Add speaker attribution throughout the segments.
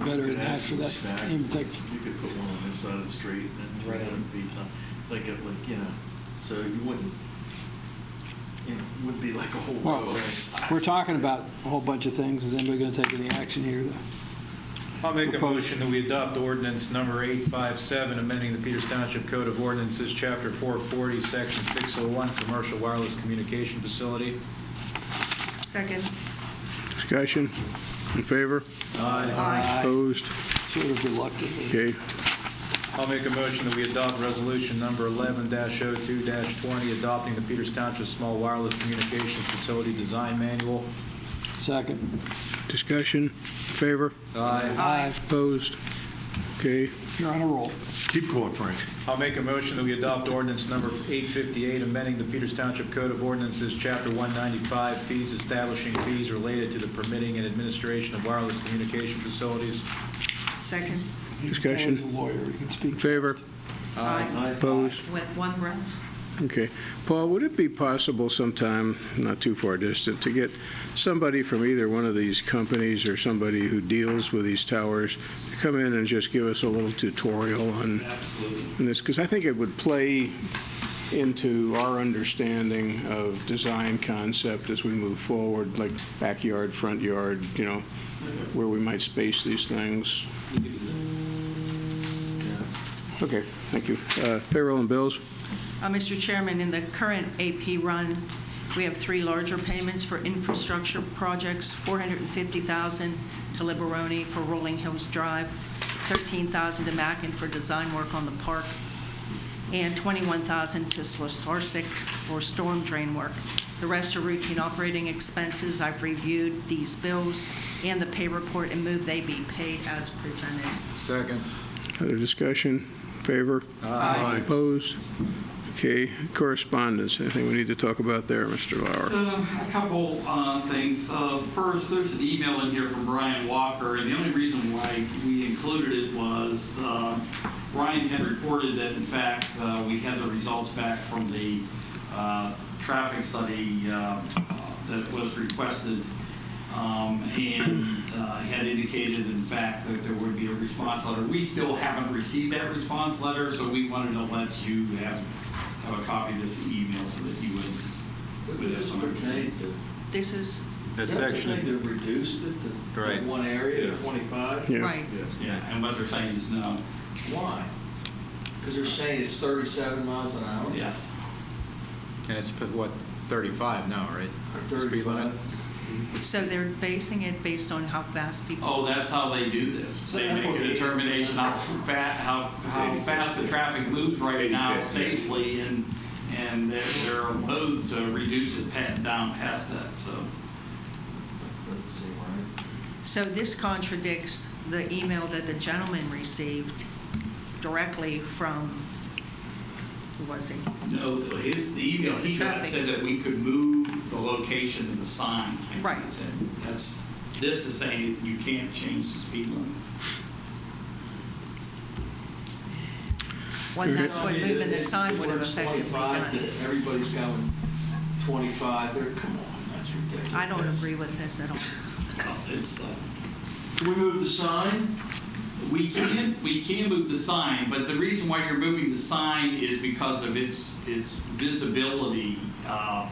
Speaker 1: better
Speaker 2: You
Speaker 1: than
Speaker 2: could
Speaker 1: that for
Speaker 2: actually
Speaker 1: that
Speaker 2: stack-
Speaker 1: impact.
Speaker 2: You could put one on this side of the street and then three
Speaker 3: Right.
Speaker 2: hundred feet, uh, like, it- like, you know, so you wouldn't, it would be like a whole.
Speaker 1: Well,
Speaker 2: row.
Speaker 1: we're talking about a whole bunch of things. Is anybody going to take any action here?
Speaker 4: I'll make a
Speaker 1: Propose-
Speaker 4: motion that we adopt ordinance number 857, amending the Peters Township Code of Ordinances, Chapter 440, Section 601, Commercial Wireless Communication Facility.
Speaker 5: Second.
Speaker 6: Discussion? In favor?
Speaker 5: Aye.
Speaker 6: Opposed?
Speaker 1: Sort of reluctantly.
Speaker 6: Okay.
Speaker 4: I'll make a motion that we adopt resolution number 11-02-20, adopting the Peters Township Small Wireless Communications Facility Design Manual.
Speaker 1: Second.
Speaker 6: Discussion? In favor?
Speaker 4: Aye.
Speaker 1: Aye.
Speaker 6: Opposed? Okay.
Speaker 1: You're on a roll.
Speaker 2: Keep going, Frank.
Speaker 4: I'll make a motion that we adopt ordinance number 858, amending the Peters Township Code of Ordinances, Chapter 195, fees establishing fees related to the permitting and administration of wireless communication facilities.
Speaker 5: Second.
Speaker 6: Discussion.
Speaker 1: He's a lawyer. He can speak.
Speaker 6: In favor?
Speaker 5: Aye.
Speaker 6: Opposed?
Speaker 5: With one breath.
Speaker 6: Okay. Paul, would it be possible sometime, not too far distant, to get somebody from either one of these companies or somebody who deals with these towers to come in and just give us a little tutorial on on this? Because I think it would play into our understanding of design concept as we move forward, like backyard, front yard, you know, where we might space these things. Okay, thank you. Uh, Payroll and bills?
Speaker 5: Uh, Mr. Chairman, in the current AP run, we have three larger payments for infrastructure projects, 450000 to Liberoni for Rolling Hills Drive, 13000 to Mackin for design work on the park, and 21000 to Slosarsic for storm drain work. The rest are routine operating expenses. I've reviewed these bills and the pay report and move they be paid as presented.
Speaker 4: Second.
Speaker 6: Other discussion? Favor? Aye. Opposed? Okay, correspondence, anything we need to talk about there, Mr. Lauer?
Speaker 7: Uh, A couple uh, things. Uh, First, there's an email in here from Brian Walker, and the only reason why we included it was uh, Brian had reported that, in fact, uh, we had the results back from the uh, traffic study uh, that was requested, um, and uh, had indicated, in fact, that there would be a response letter. We still haven't received that response letter, so we wanted to let you have have a copy of this email so that you would
Speaker 2: This is what we're trying to.
Speaker 5: This is,
Speaker 4: The
Speaker 2: Is that what
Speaker 4: section.
Speaker 2: they did, reduced it to
Speaker 4: Right.
Speaker 2: one area,
Speaker 7: Yeah.
Speaker 2: to 25?
Speaker 6: Yeah.
Speaker 5: right.
Speaker 7: Yeah, and what they're saying is no.
Speaker 2: Why? Because they're saying it's 37 miles an hour?
Speaker 7: Yes.
Speaker 4: And it's, what, 35 now, right? Speed limit?
Speaker 2: 35?
Speaker 5: So they're basing it based on how fast people.
Speaker 7: Oh, that's how they do this. They
Speaker 2: That's
Speaker 7: make
Speaker 2: what
Speaker 7: a
Speaker 2: they-
Speaker 7: determination how fat, how, how fast the traffic moves right now safely and, and they're they're loath to reduce it pa- down past that, so.
Speaker 2: Doesn't seem right.
Speaker 5: So this contradicts the email that the gentleman received directly from, who was he?
Speaker 7: No, his, the email he got said that we could move the location of the sign. I think
Speaker 5: Right.
Speaker 7: it said. That's, this is saying you can't change the speed limit.
Speaker 5: Well, that's
Speaker 2: I
Speaker 5: what
Speaker 2: mean,
Speaker 5: moving
Speaker 2: it-
Speaker 5: the
Speaker 2: it-
Speaker 5: sign
Speaker 2: it
Speaker 5: would have
Speaker 2: works
Speaker 5: effectively
Speaker 2: 25,
Speaker 5: done.
Speaker 2: that Everybody's going 25, they're, come on, that's ridiculous.
Speaker 5: I don't agree with this at all.
Speaker 7: It's, uh,
Speaker 2: Can we move the sign?
Speaker 7: We can, we can move the sign, but the reason why you're moving the sign is because of its, its visibility uh,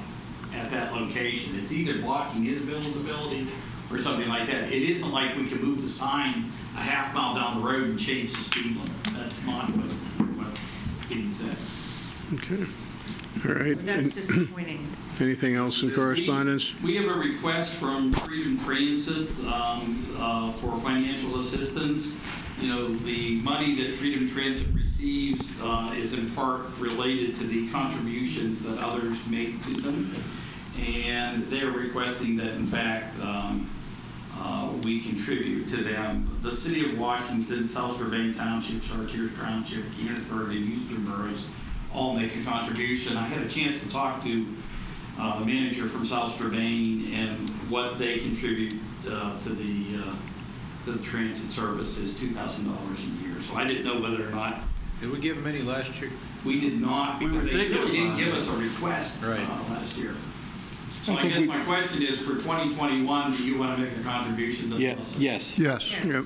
Speaker 7: at that location. It's either blocking his visibility or something like that. It isn't like we can move the sign a half mile down the road and change the speed limit. That's not what, what being said.
Speaker 6: Okay, all right.
Speaker 5: That's disappointing.
Speaker 6: Anything else in correspondence?
Speaker 7: We we have a request from Freedom Transit um, uh, for financial assistance. You know, the money that Freedom Transit receives uh, is in part related to the contributions that others make to them. And they're requesting that, in fact, um, uh, we contribute to them. The city of Washington, South Strabane Township, Chartiers Township, Keenersburg, and Houston boroughs all make a contribution. I had a chance to talk to uh, the manager from South Strabane and what they contribute uh, to the, uh, to the transit service is $2,000 a year. So I didn't know whether or not,
Speaker 4: Did we give them any last year?
Speaker 7: we did not,
Speaker 2: We were
Speaker 7: because they
Speaker 2: thinking
Speaker 7: really didn't
Speaker 2: about
Speaker 7: give
Speaker 2: it.
Speaker 7: us a request uh,
Speaker 4: Right.
Speaker 7: last year. So
Speaker 1: I
Speaker 7: I
Speaker 1: think
Speaker 7: guess
Speaker 1: we-
Speaker 7: my question is, for 2021, do you want to make a contribution to the
Speaker 1: Yeah,
Speaker 7: bus?
Speaker 1: yes.
Speaker 6: Yes.
Speaker 5: Yes.
Speaker 6: Yep,